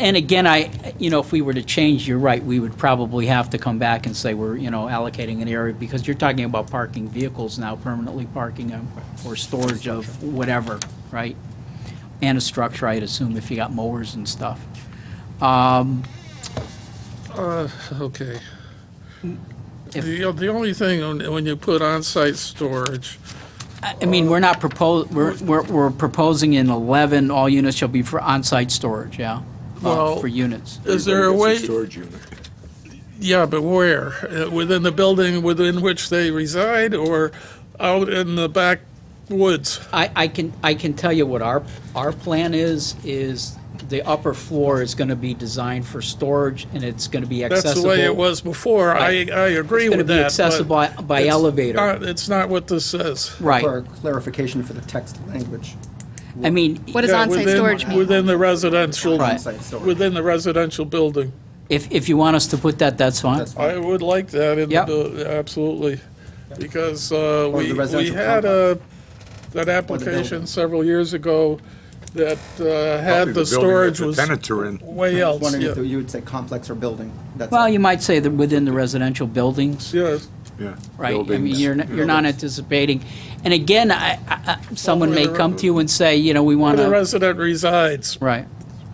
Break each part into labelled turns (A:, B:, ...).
A: And again, I, you know, if we were to change, you're right, we would probably have to come back and say we're, you know, allocating an area, because you're talking about parking vehicles now, permanently parking them, or storage of whatever, right? And a structure, I'd assume, if you got mowers and stuff.
B: Okay.
A: If-
B: The, the only thing, on- when you put on-site storage,
A: I I mean, we're not propos, we're, we're we're proposing in 11, all units shall be for on-site storage, yeah? Uh,
B: Well,
A: For units.
B: is there a way,
C: That's storage unit.
B: yeah, but where? Uh, Within the building within which they reside or out in the back woods?
A: I, I can, I can tell you what our, our plan is, is the upper floor is gonna be designed for storage, and it's gonna be accessible.
B: That's the way it was before. I, I
A: Right.
B: agree
A: It's gonna
B: with
A: be
B: that. but
A: accessible by- by
B: it's
A: elevator.
B: not- It's not what this says.
A: Right,
D: For clarification for the text language.
A: I mean,
E: What does
B: Yeah,
E: on-site
B: within-
E: storage mean?
B: Within the residential,
A: Right.
D: On-site storage.
B: within the residential building.
A: if, if you want us to put that, that's fine.
D: That's
B: I would like that in the,
A: Yep.
B: buil- absolutely, because uh,
D: the
B: we, we
D: residential
B: had a, an application
D: building.
B: several years ago that uh, had the
C: Probably building that
B: storage
C: The
B: was
C: tenants are in.
B: way
D: I was
B: else,
D: wondering if
B: yeah.
D: you would say complex or building. That's
A: Well,
D: all.
A: you might say that within the residential buildings,
B: Yeah,
C: Yeah.
A: right? I mean,
C: Buildings.
A: you're, n- you're not anticipating, and again, I, I, I- someone may come to you and say, you know, we
B: where the
A: wanna,
B: resident resides.
A: Uh-huh. right.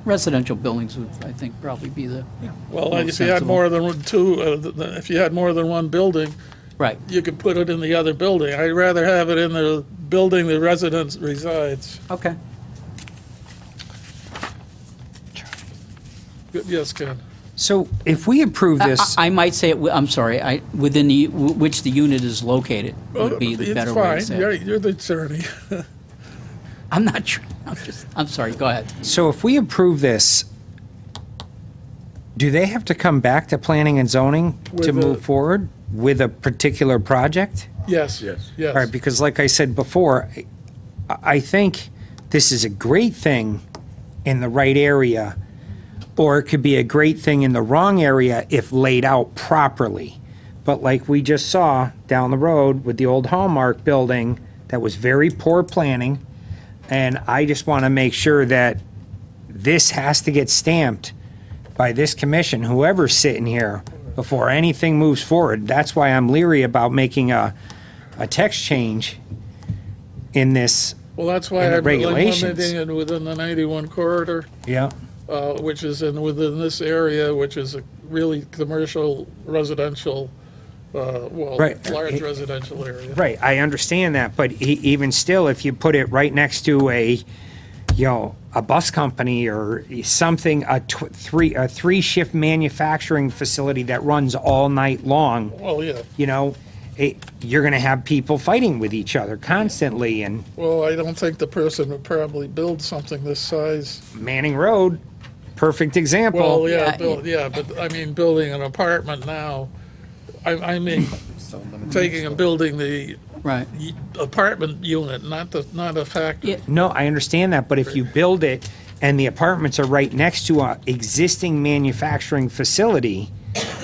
A: Residential buildings would, I think, probably be the,
B: Well,
A: More
B: if you had
A: sensible.
B: more than one- two, uh, th- th- if you had more than one building,
A: right.
B: you could put it in the other building. I'd rather have it in the building the resident resides.
A: Okay.
B: Y- Yes, Ken?
F: So if we approve this,
A: I I might say, it wi- I'm sorry, I, within the, w- which the unit is located would be the better way to
B: Oh, It's
A: say
B: fine, you're,
A: it.
B: you're the attorney.
A: I'm not sure, I'm just, I'm sorry, go ahead.
F: so if we approve this, do they have to come back to planning and zoning
B: With
F: to
B: a-
F: move forward with a particular project?
B: Yes,
C: Yes.
B: yes.
F: All right, because like I said before, I, I think this is a great thing in the right area, or it could be a great thing in the wrong area if laid out properly. But like we just saw down the road with the old Hallmark building, that was very poor planning. And I just want to make sure that this has to get stamped by this commission, whoever's sitting here, before anything moves forward. That's why I'm leery about making a, a text change in this.
B: Well, that's why
F: and the
B: I'm
F: regulations.
B: limiting it within the 91 corridor,
F: Yeah.
B: uh, which is in, within this area, which is a really commercial, residential, uh, well,
F: Right.
B: large residential area.
F: Right, I understand that, but e- even still, if you put it right next to a, you know, a bus company or something, a tw- three, a three-shift manufacturing facility that runs all night long,
B: Well, yeah,
F: you know, it, you're going to have people fighting with each other constantly. And
B: well, I don't think the person would probably build something this size.
F: Manning Road, perfect example.
B: Well, yeah,
A: yeah,
B: buil- yeah, but I mean, building an apartment now, I, I mean,
D: So limited.
B: taking and building the
A: Right.
B: y- apartment unit, not the, not a factory.
A: Yeah.
F: No, I understand that, but if you build it and the apartments are right next to a existing manufacturing facility,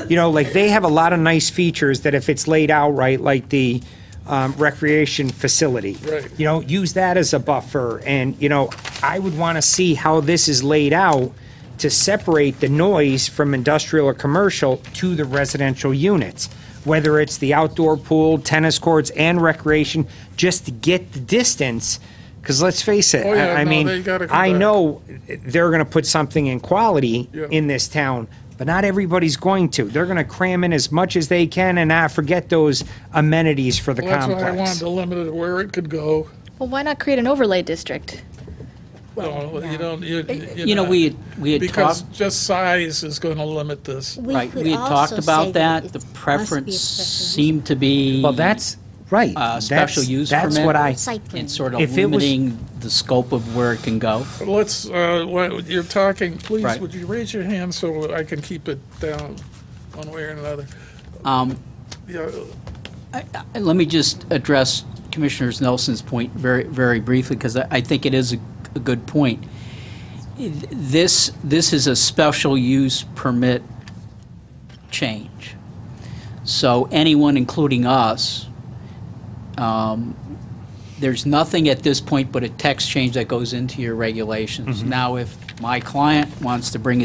F: you know, like they have a lot of nice features that if it's laid out right, like the um, recreation facility.
B: Right.
F: You know, use that as a buffer and, you know, I would want to see how this is laid out to separate the noise from industrial or commercial to the residential units. Whether it's the outdoor pool, tennis courts and recreation, just to get the distance. Cause let's face it,
B: Oh, yeah,
F: I, I
B: no,
F: mean,
B: they gotta come
F: I
B: back.
F: know they're gonna put something in quality
B: Yeah.
F: in this town, but not everybody's going to. They're gonna cram in as much as they can and not forget those amenities for the
B: Well, That's why I wanted
F: complex.
B: to limit it where it could go.
E: Well, why not create an overlay district?
B: No, you don't, you, you're
A: You know,
B: not-
A: we, had- we had
B: Because
A: talked,
B: just size is going to limit this.
G: We
A: right,
G: could
A: we had talked
G: also say
A: about that,
G: it
A: the
G: must be a
A: preference
G: special
A: seemed to be.
F: Well, that's, right.
A: Uh,
F: That's-
A: special use permit.
F: That's what I,
G: Site plan.
A: And sort of
F: If it was-
A: limiting the scope of where it can go.
B: Let's, uh, why- you're talking, please,
A: Right.
B: would you raise your hand so I can keep it down one way or another?
A: Um,
B: Yeah,
A: Uh, Let me just address Commissioner Nelson's point very, very briefly, because I I think it is a a good point. This, this is a special use permit change. So anyone, including us, um, there's nothing at this point but a text change that goes into your regulations. Now, if my client wants to bring